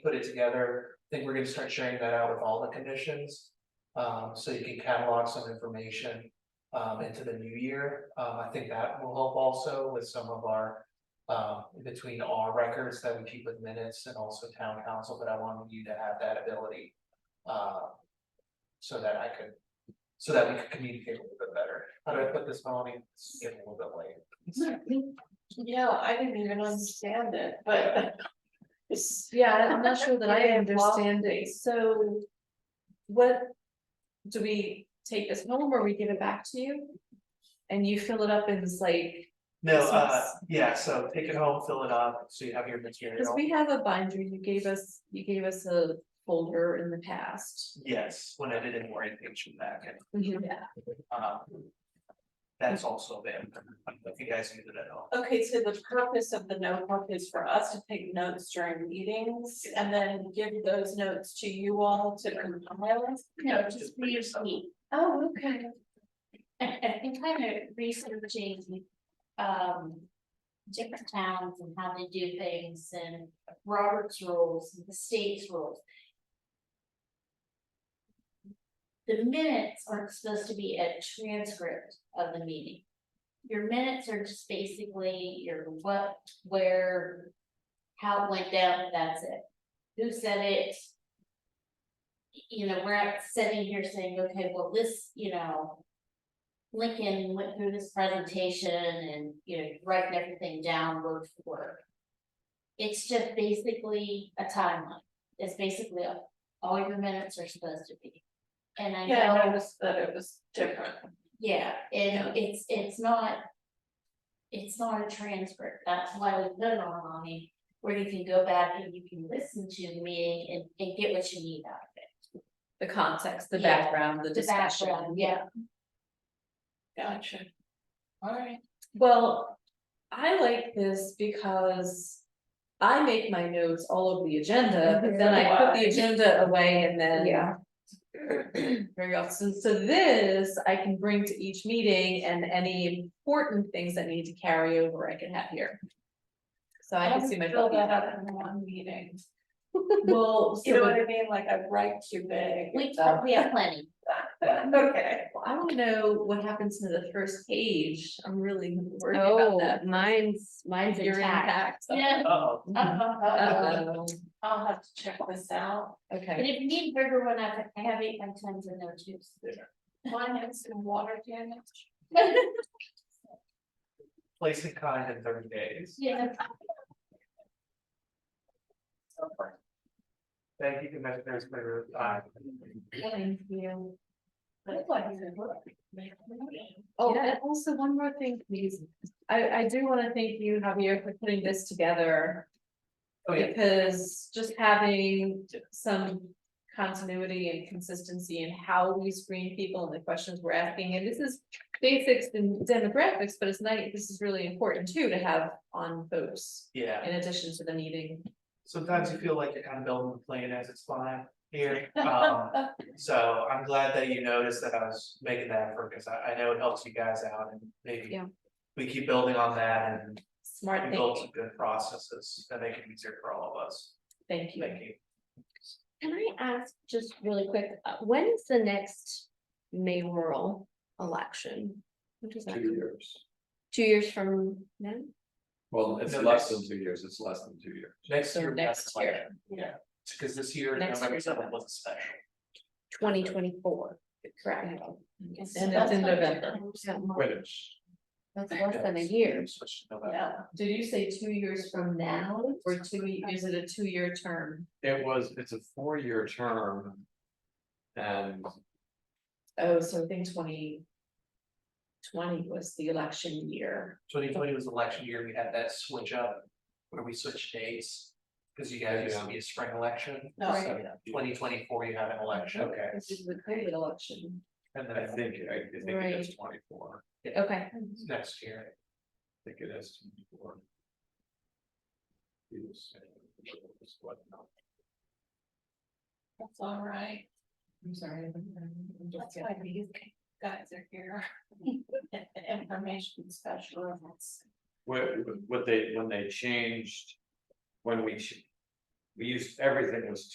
put it together. I think we're gonna start sharing that out with all the conditions. Um, so you can catalog some information um into the new year. Um, I think that will help also with some of our. Um, between our records that we keep with minutes and also town council, but I wanted you to have that ability. Uh, so that I could, so that we could communicate a little bit better. How do I put this, Melanie? It's getting a little bit late. Yeah, I didn't even understand it, but. It's, Yeah, I'm not sure that I Yeah, well- understand it, so. What? Do we take this home or we give it back to you? And you fill it up in this like, No, uh, Christmas. yeah, so take it home, fill it up, so you have your cause material. we have a binder, you gave us, you gave us a folder in the past. Yes, when I did an orientation back and, Yeah. um. That's also there, if you guys needed it at all. okay, so the purpose of the notebook is for us to take notes during meetings and then give those notes to you all to compile. No, just for your seat. Oh, okay. I- I've been kind of researching, um, different towns and how they do things and Robert's rules, and the state's rules. The minutes aren't supposed to be a transcript of the meeting. Your minutes are just basically your what, where, how it went down, that's it. Who said it? You know, we're not sitting here saying, okay, well, this, you know, Lincoln went through this presentation and, you know, writing everything down word for word. It's just basically a timeline, it's basically all- all your minutes are supposed to be. And I Yeah, I know, noticed that it was different. yeah, and it's, it's not. It's not a transcript, that's why we put it online, where you can go back and you can listen to the meeting and, and get what you need out of it. The context, the Yeah, background, the The discussion. background, yeah, Gotcha. All right. Well, I like this because. I make my notes all over the agenda, but then I put the Mhm. agenda away and then. Yeah. Very often, so this I can bring to each meeting and any important things that need to carry over I can have here. So I can see my. Fill that up in one meeting. Well, so You know what the- I mean? Like I write too big. we, we have plenty, Okay. I wanna know what happens to the first page, I'm really worried about Oh, that. mine's, mine's You're intact. intact. yeah, Uh-oh, Uh, Uh-huh. uh, uh, Uh-oh. I'll have to check this out. but Oh, Okay, if you need bigger one, I I have eight by tens in there too. Mine has some water damage. place in kind in thirty days. Yeah, Thank you, Uh, Commissioners, for your time. thank you. Look like it's working. Oh, Yeah. and also one more thing, please. I, I do want to thank you, Javier, for putting this together. Oh, yeah. Because just having some continuity and consistency in how we screen people and the questions we're asking, and this is basics and demographics, but it's nice, this is really important too, to have on folks Yeah, in addition to the meeting. sometimes you feel like you're kind of building the plane as it's flying here. Um, so I'm glad that you noticed that I was making that effort, because I, I know it helps you guys out and maybe Yeah. we keep building on that and Smart We built some thinking, good processes that make it easier for all of us. thank you. Thank you. Can I ask just really quick, uh, when is the next mayoral election? When does that Two come? years. Two years from now? Well, it's No, less next- than two years. It's less than two years. Next So year. next year. Yeah, because this year, Next November year's seventh November. was a special. Twenty twenty-four, correct? And it's in November. Yeah, Wait, it's- That's less than a year. it's just November. Yeah. Did you say two years from now or two, ye- is it a two-year term? It was, it's a four-year term. And Oh, so I think twenty twenty was the election year. Twenty twenty was election year, we had that switch up, where we switched dates, because you guys used to be a spring election. No. Twenty twenty four, you have an election. okay, This is the COVID election. And then I think, I I think it is Right. twenty-four. Okay, it's next year, I think it is twenty-four. It was, uh, it was what, no, That's all right. I'm sorry. I'm- I'm- I'm just That's getting- why these guys are here. Information specialists. What, what they, when they changed, when we ch- we used, everything was